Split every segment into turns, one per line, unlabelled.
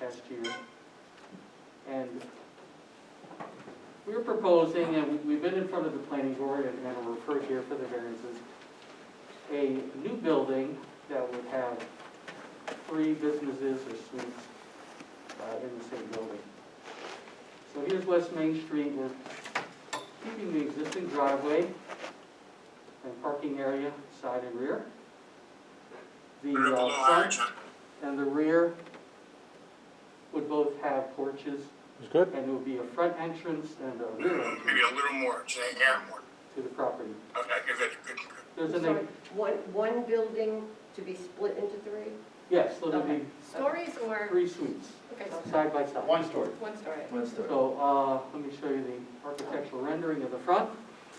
last year. And we're proposing, and we- we've been in front of the planning board and and we're referred here for the variances, a new building that would have three businesses or suites uh, in the same building. So here's West Main Street, we're keeping the existing driveway and parking area, side and rear. The
Ripple,
uh, front
Ohio, Chuck.
and the rear would both have porches,
It's good.
and it would be a front entrance and a rear
Maybe
entrance
a little more, say, air more.
to the property.
Okay, good, good, good, good.
There's
I'm
an,
sorry,
ex-
One, one building to be split into three?
yes, so there'd
Okay.
be
Stories or,
three suites,
okay, so
side by side.
One story.
one story.
One story.
So, uh, let me show you the architectural rendering of the front.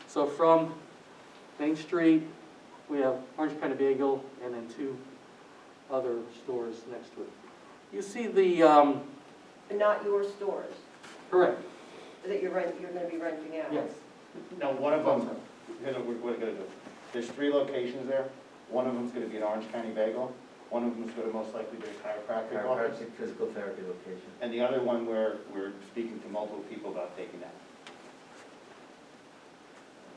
So from Main Street, we have Orange Pennebagle and then two other stores next to it. You see the, um,
But not your stores
correct,
that you're rent, you're gonna be renting out?
yes,
Now, one of them, here's what we're what we're gonna do. There's three locations there. One of them's gonna be an Orange County Bagel. One of them's gonna most likely be a chiropractic office.
Chiropractic physical therapy location.
And the other one where we're speaking to multiple people about taking that.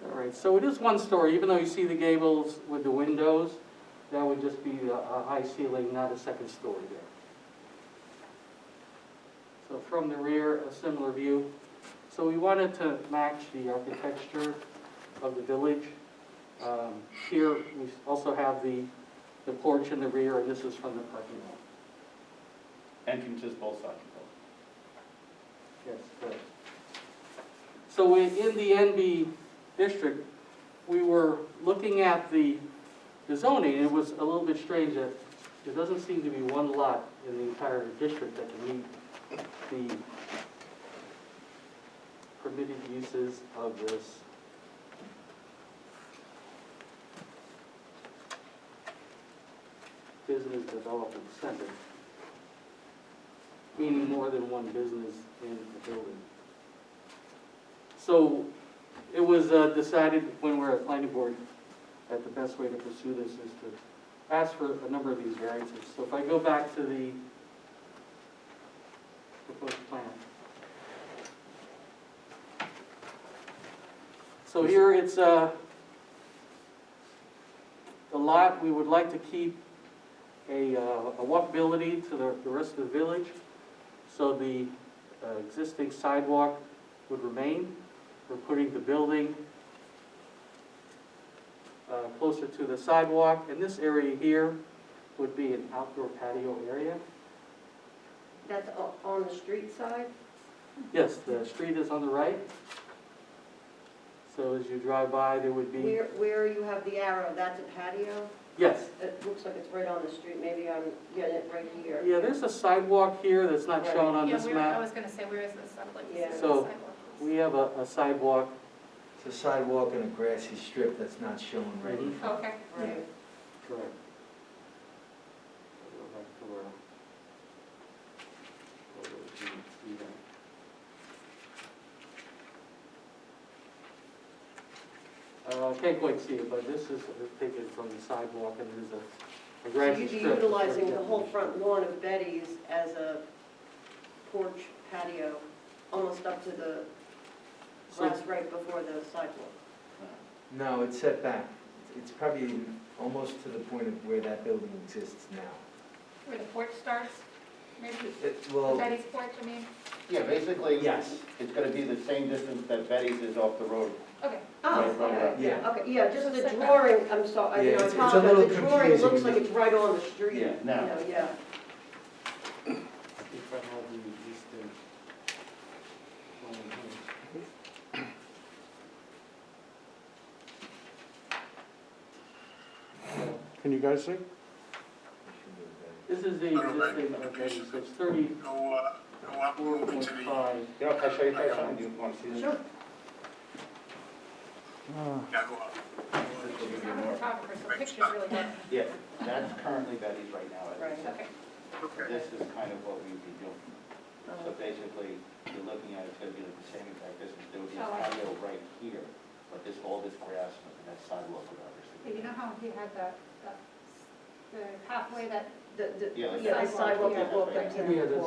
All right, so it is one story, even though you see the gables with the windows, that would just be a, a high ceiling, not a second story there. So from the rear, a similar view. So we wanted to match the architecture of the village. Um, Here, we also have the, the porch in the rear, and this is from the parking lot.
Entrances both sides.
Yes, correct. So in, in the NB district, we were looking at the, the zoning, and it was a little bit strange that there doesn't seem to be one lot in the entire district that can meet the permitted uses of this. Business Development Center, meaning more than one business in the building. So it was uh, decided when we were at planning board that the best way to pursue this is to ask for a number of these variances. So if I go back to the proposed plan. So here it's, uh, the lot, we would like to keep a, uh, a walkability to the, the rest of the village. So the uh, existing sidewalk would remain. We're putting the building uh, closer to the sidewalk, and this area here would be an outdoor patio area.
That's o- on the street side?
Yes, the street is on the right. So as you drive by, there would be,
Where, where you have the arrow, that's a patio?
yes.
It looks like it's right on the street, maybe I'm getting it right here.
Yeah, there's a sidewalk here that's not shown on
Yeah,
this
where, I
map.
was gonna say, where is this, I'd like to see
Yeah.
where the
So,
sidewalk is.
We have a a sidewalk,
It's a sidewalk and a grassy strip that's not shown
Mm-hmm.
right in
Mhm.
front.
Okay,
Right.
correct. Go back to uh, where- where we can see that. Uh, I can't quite see it, but this is taken from the sidewalk and there's a- a
So
grassy
you'd be
strip.
utilizing the whole front lawn of Betty's as a porch patio, almost up to the
So-
glass right before the sidewalk.
No, it's set back. It's probably almost to the point of where that building exists now.
where the porch starts, maybe,
It, well,
Betty's porch, I mean,
Yeah, basically.
Yes.
It's gonna be the same distance that Betty's is off the road.
okay.
Oh,
Right, right, right.
yeah,
Okay, yeah, just
So
the
setback.
drawing, I'm sorry, I
Yeah,
mean,
it's-
I
it's a little
apologize, the drawing looks
confusing.
like it's right on the street.
Yeah,
you
now.
know, Yeah,
If I have the existing one here.
Can you guys see?
This is the existing, okay, so it's thirty
Go, uh, go up a
Four
little bit
point
to the,
five,
You know, if I show you guys something, do you wanna see this?
sure.
yeah, go up.
She's not a photographer, so pictures really good,
Yeah, that's currently Betty's right now. as I said.
okay.
Okay,
This is kind of what we'd be doing.
Um,
So basically, you're looking at, it's gonna be like the same exact distance, there would be a
Oh, I see.
patio right here, but this, all this grass, and that sidewalk would
But you
obviously.
know how he had the, the- the pathway that
The, the,
Yeah, like
yeah, the sidewalk
sidewalk,
yeah.
that walked up to
Yeah,
the
that's-
porch.